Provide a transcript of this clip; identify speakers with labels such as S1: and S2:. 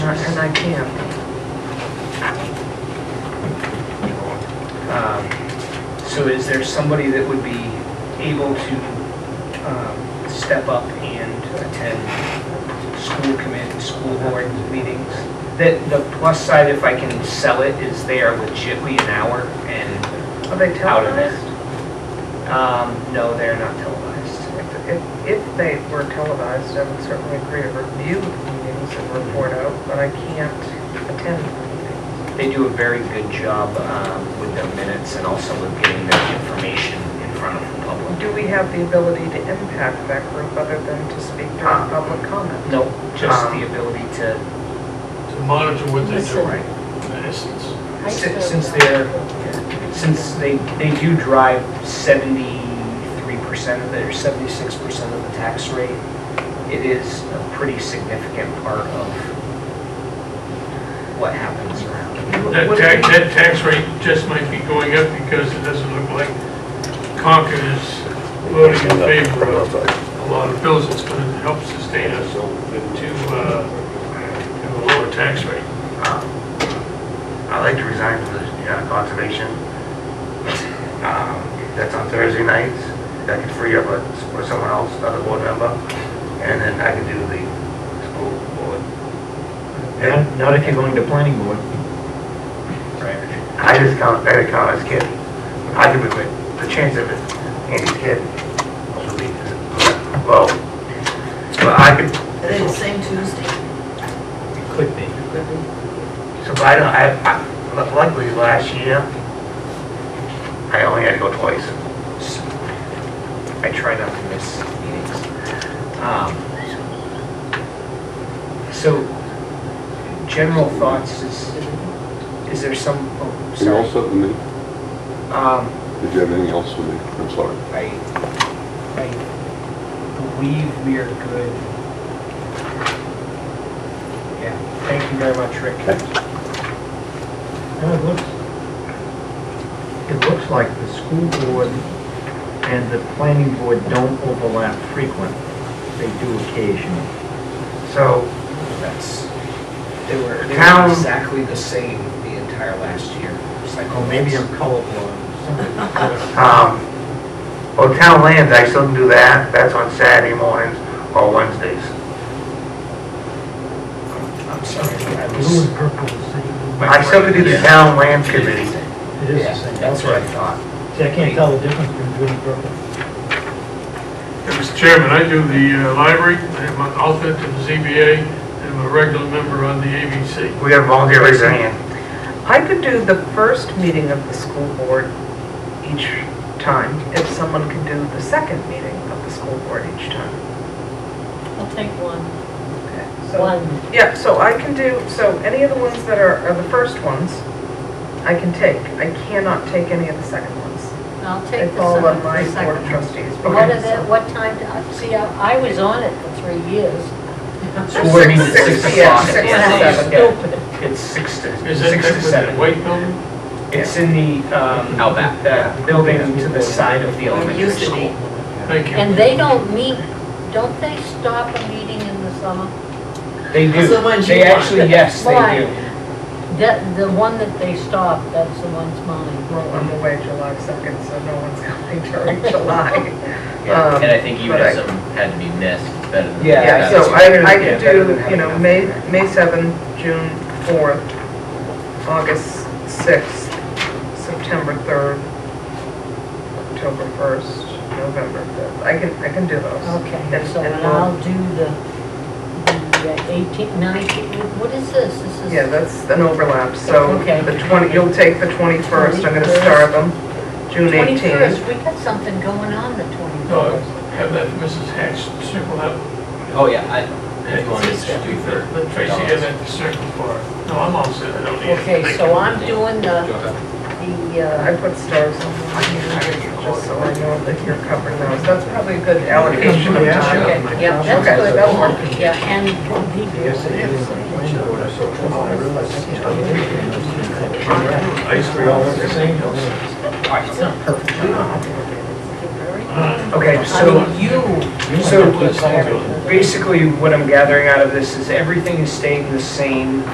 S1: and I can't.
S2: Um, So is there somebody that would be able to um, step up and attend school committee, school board meetings? The, the plus side, if I can sell it, is they are legitly an hour and
S1: Are they
S2: out of it.
S1: televised?
S2: Um, No, they're not televised.
S1: If- If, if they were televised, I would certainly agree to review the meetings and report out, but I can't attend the meetings.
S2: They do a very good job um, with their minutes and also with getting their information in front of the public.
S1: Do we have the ability to impact that group other than to speak during public comment?
S2: No, just
S1: Um,
S2: the ability to
S3: to monitor what they do.
S4: Listen.
S3: In essence,
S2: Since since they're, since they, they do drive seventy-three percent of it, or seventy-six percent of the tax rate, it is a pretty significant part of what happens around.
S3: that tax, that tax rate just might be going up because it doesn't look like Concord is voting in favor of a lot of bills that's going to help sustain us to, uh, have a lower tax rate.
S5: I'd Um, like to resign from the uh, conservation. Um, That's on Thursday nights. I could free up a- for someone else, another board member, and then I could do the school board.
S6: Not not if you're going to planning board.
S2: Right.
S5: I just count, I count as kid. I could be, with- the chance of it, Andy's kid. should be Well, but I could,
S4: Are they the same Tuesday?
S6: Could be.
S5: so I don't, I, I- luckily last year, I only had to go twice.
S2: I try not to miss meetings. Um, So, general thoughts is, is there some, oh,
S7: Anything else
S2: sorry.
S7: with me?
S2: Um,
S7: Did you have anything else with me? I'm sorry.
S2: I, I believe we are good. Yeah, thank you very much, Rick.
S6: No, it looks, it looks like the school board and the planning board don't overlap frequently. They do occasionally.
S5: So,
S2: That's, they were, they were
S5: Town-
S2: exactly the same the entire last year. It's like,
S6: Oh, maybe I'm colorblind. Somebody-
S5: Um, well, town lands, I still can do that, that's on Saturday mornings or Wednesdays.
S2: I'm sorry, I
S6: Blue
S2: was.
S6: and purple is the same.
S5: I still could do the
S2: Yeah.
S5: town land committee.
S6: It is the
S2: Yeah,
S6: same.
S2: that's what I thought.
S6: See, I can't tell the difference between blue and purple.
S3: And, Mr. Chairman, I do the uh, library, I'm an alternate to the ZBA, and I'm a regular member on the ABC.
S5: We got volunteer raising hand.
S1: I could do the first meeting of the school board each time, if someone could do the second meeting of the school board each time.
S4: I'll take one.
S1: Okay. So,
S4: One.
S1: yeah, so I can do, so any of the ones that are, are the first ones, I can take. I cannot take any of the second ones.
S4: I'll
S1: They
S4: take the
S1: fall on
S4: second,
S1: my board
S4: the
S1: of
S4: second.
S1: trustees.
S4: What is it, what time, do I- see, I I was on it for three years.
S2: So we're meeting at six
S1: Six, yeah,
S2: o'clock.
S1: six
S4: And I was
S1: to
S2: It's-
S1: seven.
S4: stupid.
S2: It's six to,
S3: Is that
S2: six
S3: that
S2: to
S3: with the
S2: seven.
S3: white building?
S2: It's in the, um.
S6: Outback.
S2: The building to the side of the
S4: It
S2: elementary
S4: used to be.
S2: school.
S3: Thank you.
S4: And they don't meet, don't they stop a meeting in the summer?
S2: They do.
S8: The ones
S2: They
S8: you want.
S2: actually, yes,
S4: Why?
S2: they do.
S4: That, the one that they stop, that's the one's mine.
S1: Well, I'm away July 2nd, so no one's coming during July.
S9: Yeah,
S1: Um,
S9: and I think even
S1: but I-
S9: if some had to be missed, it's better than.
S2: Yeah,
S1: Yeah,
S9: nothing.
S1: so I, I could
S2: Yeah, better than
S1: do, you know,
S2: having
S1: May, May 7th, June 4th, August 6th, September 3rd, October 1st, November 5th. I can, I can do those.
S4: Okay,
S1: And-
S4: so
S1: and uh,
S4: then
S1: we'll-
S4: I'll do the, the 18, 19, what is this? This is.
S1: Yeah, that's an overlap, so
S4: Okay.
S1: the 20, you'll take the 21st, I'm gonna starve them, June 18th.
S4: 21st, we got something going on the 21st.
S3: No, Oh, have that Mrs. Hatch circle that.
S9: Oh, yeah, I, if you want to just do for.
S3: Let Tracy have that circle for her. No, I'm all set, I don't need anything.
S4: Okay, so I'm doing the, the,
S1: I
S4: uh,
S1: put stars on them, just so I know that you're covering those. That's probably a good allocation of
S6: Yeah.
S1: time.
S4: okay, yeah, that's
S1: Okay,
S4: good.
S1: that'll work.
S4: Yeah, and the,
S6: Yes, it
S3: Ice
S6: is.
S3: cream.
S2: Okay,
S4: I
S2: so.
S4: mean, you,
S2: So basically, what I'm gathering out of this is everything is staying the same